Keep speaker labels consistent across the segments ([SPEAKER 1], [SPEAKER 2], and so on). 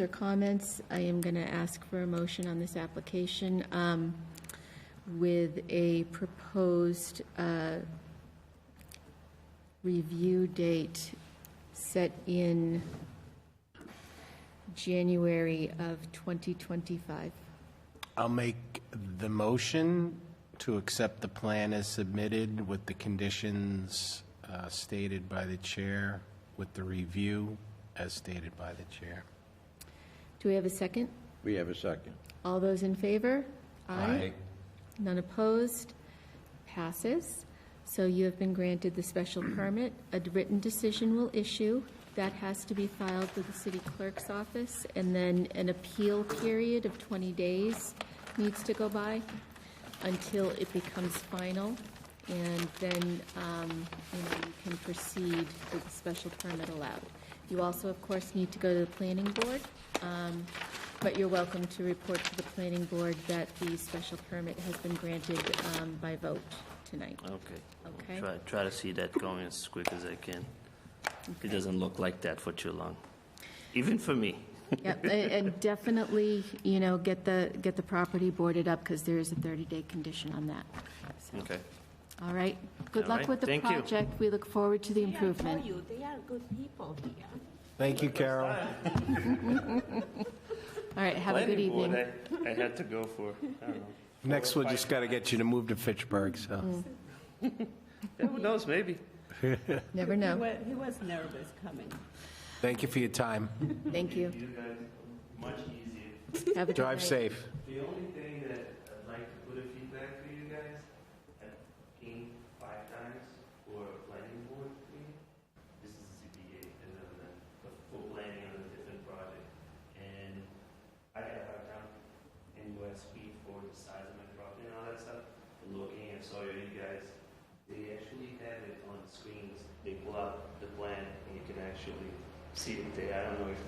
[SPEAKER 1] or comments, I am going to ask for a motion on this application um, with a proposed uh, review date set in January of 2025.
[SPEAKER 2] I'll make the motion to accept the plan as submitted with the conditions uh, stated by the chair, with the review as stated by the chair.
[SPEAKER 1] Do we have a second?
[SPEAKER 3] We have a second.
[SPEAKER 1] All those in favor? None opposed? Passes. So you have been granted the special permit. A written decision will issue. That has to be filed with the city clerk's office, and then an appeal period of 20 days needs to go by until it becomes final, and then, um, you know, you can proceed with the special permit allowed. You also, of course, need to go to the planning board. Um, but you're welcome to report to the planning board that the special permit has been granted um, by vote tonight.
[SPEAKER 4] Okay. I'll
[SPEAKER 1] Okay.
[SPEAKER 4] Try, try to see that going as quick as I can. It doesn't look like that for too long, even for me.
[SPEAKER 1] Yep, a- and definitely, you know, get the, get the property boarded up, because there is a 30-day condition on that. So,
[SPEAKER 4] Okay.
[SPEAKER 1] All right, good
[SPEAKER 4] All
[SPEAKER 1] luck
[SPEAKER 4] right,
[SPEAKER 1] with the
[SPEAKER 4] thank you.
[SPEAKER 1] project. We look forward to the
[SPEAKER 5] I
[SPEAKER 1] improvement.
[SPEAKER 5] tell you, they are good people here.
[SPEAKER 2] Thank you, Carol.
[SPEAKER 1] All right, have a good
[SPEAKER 4] eh?
[SPEAKER 1] evening.
[SPEAKER 4] I had to go for, I don't know.
[SPEAKER 2] Next, we'll just got to get you to move to Fitchburg,
[SPEAKER 5] Mm.
[SPEAKER 2] so.
[SPEAKER 4] Who knows, maybe.
[SPEAKER 1] Never
[SPEAKER 5] He
[SPEAKER 1] know.
[SPEAKER 5] wa- He was nervous coming.
[SPEAKER 2] Thank you for your time.
[SPEAKER 1] Thank you.
[SPEAKER 4] You guys, much easier.
[SPEAKER 1] Have a good
[SPEAKER 2] Drive
[SPEAKER 1] night.
[SPEAKER 2] safe.
[SPEAKER 4] The only thing that I'd like to put a feedback for you guys, I've came five times for a planning board meeting. This is CPA, and then the, the full planning on a different project. And I got a hard time in West Speed for the size of my property and all that stuff. And looking at Sawyer, you guys, they actually have it on screens. They pull out the plan and you can actually see it there. I don't know if.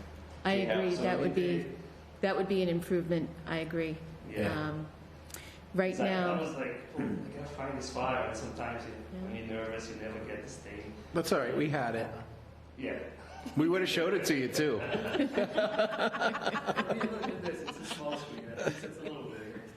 [SPEAKER 1] I
[SPEAKER 4] they have
[SPEAKER 1] agree, that would
[SPEAKER 4] something
[SPEAKER 1] be,
[SPEAKER 4] there.
[SPEAKER 1] that would be an improvement, I agree.
[SPEAKER 4] Yeah.
[SPEAKER 1] Um, Right
[SPEAKER 4] It's like,
[SPEAKER 1] now.
[SPEAKER 4] I was like, oh, I gotta find this file. And sometimes you, when you're nervous, you never get this thing.
[SPEAKER 2] That's all right, we had it.
[SPEAKER 4] Yeah.
[SPEAKER 2] We would have showed it to you, too.
[SPEAKER 4] I mean, look at this. It's a small screen. At least It's a little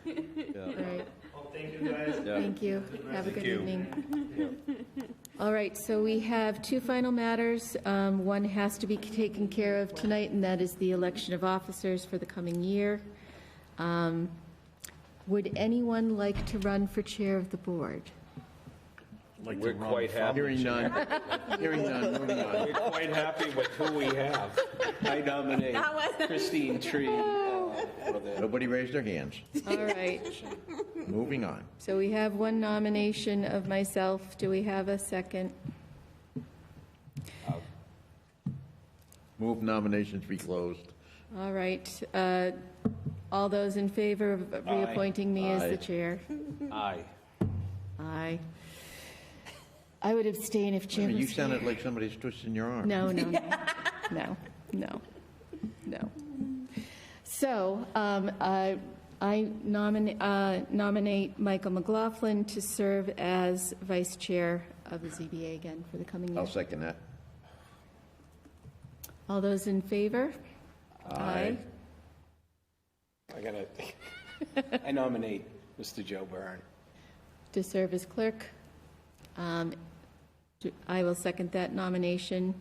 [SPEAKER 4] bigger.
[SPEAKER 1] All right,
[SPEAKER 4] Oh, thank you guys.
[SPEAKER 1] thank you. Have a good
[SPEAKER 2] you.
[SPEAKER 1] evening.
[SPEAKER 4] Yeah.
[SPEAKER 1] All right, so we have two final matters. Um, One has to be taken care of tonight, and that is the election of officers for the coming year. Um, Would anyone like to run for chair of the board?
[SPEAKER 3] We're quite happy.
[SPEAKER 2] Hearing none. Hearing none, moving on.
[SPEAKER 3] We're quite happy with who we have.
[SPEAKER 2] I nominate Christine Tree.
[SPEAKER 3] Nobody raised their hands.
[SPEAKER 1] All right,
[SPEAKER 3] Moving on.
[SPEAKER 1] so we have one nomination of myself. Do we have a second?
[SPEAKER 3] Move nominations be closed.
[SPEAKER 1] All right, uh, all those in favor of reappointing me as the
[SPEAKER 3] Aye.
[SPEAKER 1] chair?
[SPEAKER 3] Aye.
[SPEAKER 1] Aye. I would abstain if Jim was
[SPEAKER 3] You
[SPEAKER 1] here.
[SPEAKER 3] sounded like somebody's twisting your arm.
[SPEAKER 1] No, no, no, no, no, no. So um, I I nomina- uh, nominate Michael McLaughlin to serve as vice chair of the ZBA again for the coming year.
[SPEAKER 3] I'll second that.
[SPEAKER 1] All those in favor?
[SPEAKER 3] Aye.
[SPEAKER 2] I gotta, I nominate Mr. Joe Byrne.
[SPEAKER 1] To serve as clerk. Um, do- I will second that nomination.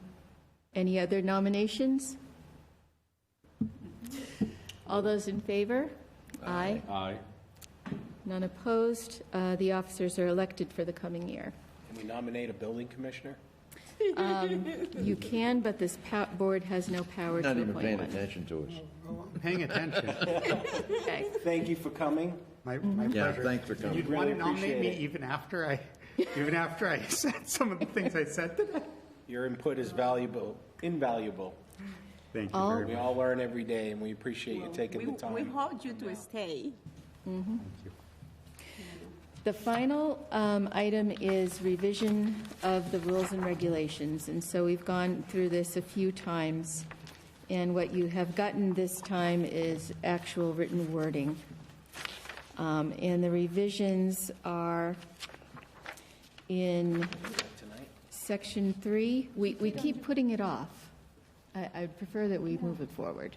[SPEAKER 1] Any other nominations? All those in favor? Aye.
[SPEAKER 6] Aye.
[SPEAKER 1] None opposed. Uh, The officers are elected for the coming year.
[SPEAKER 2] Can we nominate a building commissioner?
[SPEAKER 1] You can, but this pow- board has no power to
[SPEAKER 3] Not even
[SPEAKER 1] appoint
[SPEAKER 3] paying
[SPEAKER 1] one.
[SPEAKER 3] attention to us.
[SPEAKER 7] Paying attention.
[SPEAKER 1] Okay.
[SPEAKER 2] Thank you for coming.
[SPEAKER 7] My, my
[SPEAKER 3] Yeah,
[SPEAKER 7] pleasure.
[SPEAKER 3] thanks for coming.
[SPEAKER 7] You'd
[SPEAKER 2] Really
[SPEAKER 7] want to nominate me
[SPEAKER 2] appreciate it.
[SPEAKER 7] even after I, even after I said some of the things I said today.
[SPEAKER 2] Your input is valuable, invaluable.
[SPEAKER 7] Thank you
[SPEAKER 1] All-
[SPEAKER 7] very
[SPEAKER 2] We
[SPEAKER 7] much.
[SPEAKER 2] all learn every day, and we appreciate you taking
[SPEAKER 5] We-
[SPEAKER 2] the
[SPEAKER 5] We
[SPEAKER 2] time.
[SPEAKER 5] hold you to stay.
[SPEAKER 1] The final um, item is revision of the rules and regulations, and so we've gone through this a few times, and what you have gotten this time is actual written wording. Um, And the revisions are in section three. We we keep putting it off. I- I'd prefer that we move it forward.